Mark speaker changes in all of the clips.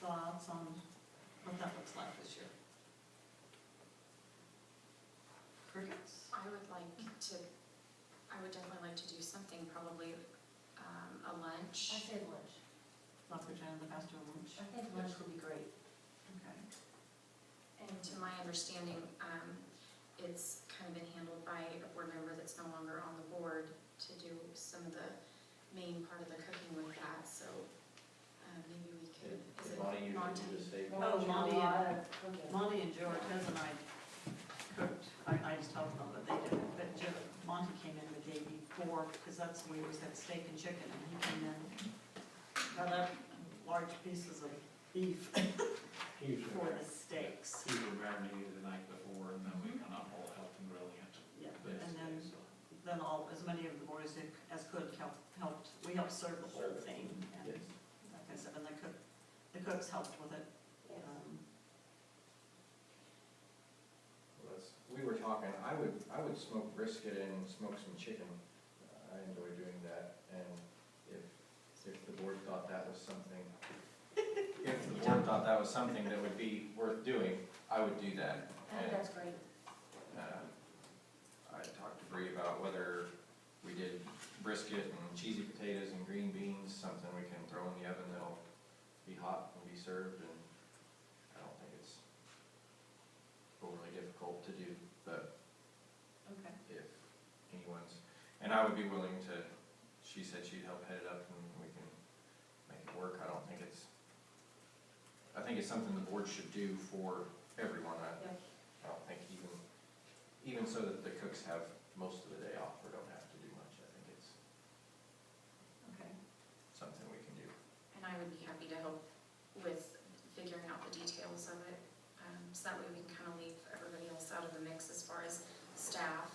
Speaker 1: thoughts on what that looks like this year? Crickets?
Speaker 2: I would like to, I would definitely like to do something, probably um, a
Speaker 3: I
Speaker 2: lunch.
Speaker 3: said lunch.
Speaker 1: Lots of jam, the pastor lunch.
Speaker 3: I think lunch would be great.
Speaker 1: Okay.
Speaker 2: And to my understanding, um, it's kind of been handled by a board member that's no longer on the board to do some of the main part of the cooking with that, so uh, maybe we could, is it
Speaker 4: Monty, you
Speaker 2: Monty?
Speaker 4: should just stay.
Speaker 1: Oh, Monty and-
Speaker 3: Okay.
Speaker 1: Monty and George, his and I cooked, I, I just helped them, but they did it. But Jo- Monty came in the day before, because that's when we always had steak and chicken, and he came in, got up large pieces of beef
Speaker 5: He was,
Speaker 1: for the steaks.
Speaker 5: he was around me the night before, and then we kind of all helped him brilliant.
Speaker 1: Yeah, Mm-hmm. and then, then all, as many of the boys that- as could help- helped, we helped serve the whole thing. and
Speaker 4: Yes.
Speaker 1: Like I said, and the cook, the cooks helped with it.
Speaker 3: Yes.
Speaker 1: Um,
Speaker 4: Well, that's- We were talking, I would, I would smoke brisket and smoke some chicken. Uh, I enjoy doing that, and if, if the board thought that was something, if the board thought that was something that would be worth doing, I would do that.
Speaker 3: I
Speaker 6: uh,
Speaker 3: think that's great.
Speaker 4: And, uh, I talked to Bree about whether we did brisket and cheesy potatoes and green beans, something we can throw in the oven that'll be hot and be served, and I don't think it's overly difficult to do, but
Speaker 1: Okay.
Speaker 4: if anyone's, and I would be willing to, she said she'd help head it up and we can make it work, I don't think it's, I think it's something the board should do for everyone, I,
Speaker 3: Yeah.
Speaker 4: I don't think even, even so that the cooks have most of the day off or don't have to do much, I think it's
Speaker 1: Okay.
Speaker 4: something we can do.
Speaker 2: And I would be happy to help with figuring out the details of it, um, so that way we can kind of leave everybody else out of the mix as far as staff,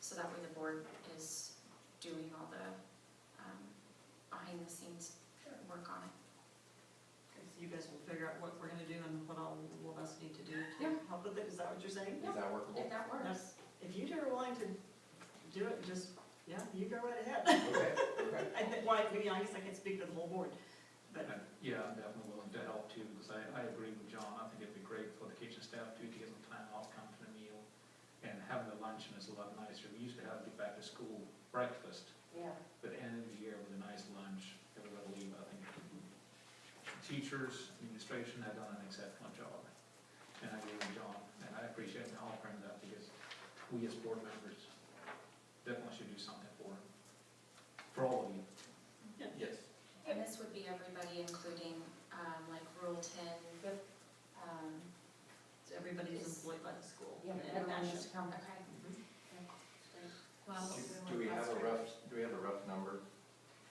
Speaker 2: so that way the board is doing all the, um, behind the scenes work on it.
Speaker 1: Okay, So you guys will figure out what we're gonna do and what all of us need to do
Speaker 2: Yeah.
Speaker 1: to help with it, is that what you're saying?
Speaker 4: Is that workable?
Speaker 2: If that works.
Speaker 1: That's- If you two are willing to do it, just, yeah, you go right ahead.
Speaker 4: Okay, okay.
Speaker 1: I think, well, I mean, I guess I can speak for the whole board, but,
Speaker 5: And, Yeah, I'm definitely willing to help too, because I, I agree with John, I think it'd be great for the kitchen staff too, to get some time off, come for a meal. And having the luncheon is a lot nicer, we used to have the back to school breakfast,
Speaker 3: Yeah.
Speaker 5: but end of the year with a nice lunch, everybody leave, I think. Teachers, administration have done an exceptional job, and I agree with John, and I appreciate him offering that, because we as board members definitely should do something for him, for all of you.
Speaker 4: Yes.
Speaker 2: And this would be everybody, including, um, like Rule Ten,
Speaker 3: Yep.
Speaker 2: um,
Speaker 1: everybody's employed by the school.
Speaker 3: Yeah,
Speaker 1: And
Speaker 3: everyone needs
Speaker 1: that's-
Speaker 3: to come.
Speaker 2: okay, Um,
Speaker 6: Well,
Speaker 4: Do we have a rough, do we have a rough number?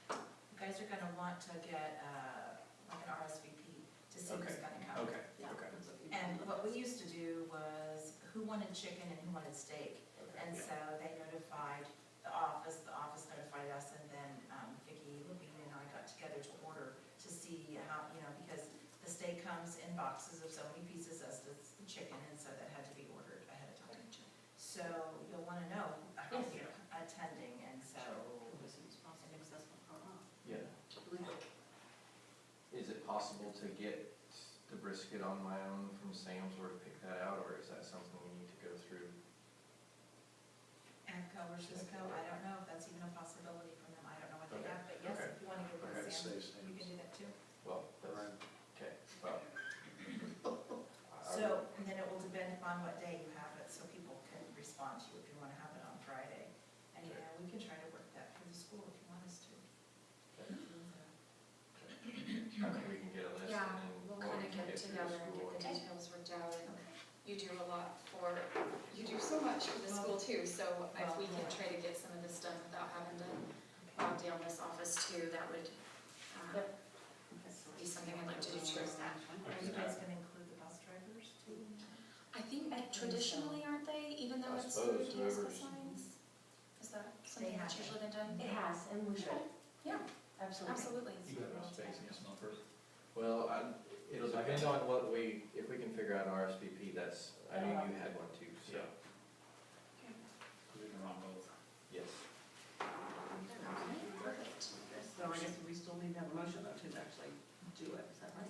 Speaker 6: you guys are gonna want to get, uh, like an RSVP to see who's
Speaker 4: Okay.
Speaker 6: gonna come.
Speaker 5: Okay,
Speaker 1: yeah,
Speaker 4: Okay.
Speaker 1: that's what we-
Speaker 6: And what we used to do was who wanted chicken and who wanted steak.
Speaker 4: Okay.
Speaker 6: And so they notified the office, the office notified us, and then um, Vicki Levine and I got together to order to see how, you know, because the steak comes in boxes of so many pieces as does the chicken, and so that had to be ordered ahead of time. So you'll wanna know how
Speaker 3: Yes.
Speaker 6: you're attending, and so
Speaker 1: It was responsible and accessible for all.
Speaker 4: Yeah. Is it possible to get the brisket on my own from Sam's or to pick that out, or is that something we need to go through?
Speaker 6: AMCO or Cisco, I don't know if that's even a possibility from them, I don't know what they
Speaker 4: Okay,
Speaker 6: have, but yes,
Speaker 4: okay.
Speaker 6: if you wanna give
Speaker 4: Okay,
Speaker 6: it to Sam, you can do that too.
Speaker 4: Well, that's, okay, well. I- I would-
Speaker 6: So, and then it will depend upon what day you have it, so people can respond to you if you wanna have it on Friday. And, you
Speaker 4: Okay.
Speaker 6: know, we can try to work that through the school if you want us to.
Speaker 4: I think we can get a list and
Speaker 2: yeah,
Speaker 4: then
Speaker 2: we'll
Speaker 4: what
Speaker 2: kind
Speaker 4: we
Speaker 2: of
Speaker 4: can
Speaker 2: get
Speaker 4: get through the
Speaker 2: together and
Speaker 4: school.
Speaker 2: get the
Speaker 4: and-
Speaker 2: details worked out, and you do a lot for, you do so much for the school too, so if we can try to get some of this done without having to bog down this office too, that would, um, be something I'd like to do too.
Speaker 6: Are you guys gonna include the bus drivers too?
Speaker 2: I think traditionally, aren't they, even though
Speaker 4: I
Speaker 2: it's
Speaker 4: suppose
Speaker 2: reduced the
Speaker 4: whoever's-
Speaker 2: signs? Is that something
Speaker 6: They
Speaker 2: that's
Speaker 6: have it.
Speaker 2: usually been done?
Speaker 3: It has, and we should.
Speaker 2: Yeah.
Speaker 3: Absolutely.
Speaker 2: Absolutely.
Speaker 5: you got enough space in your snuffer?
Speaker 4: Well, I, it'll depend on what we, if we can figure out an RSVP, that's, I knew you had one too,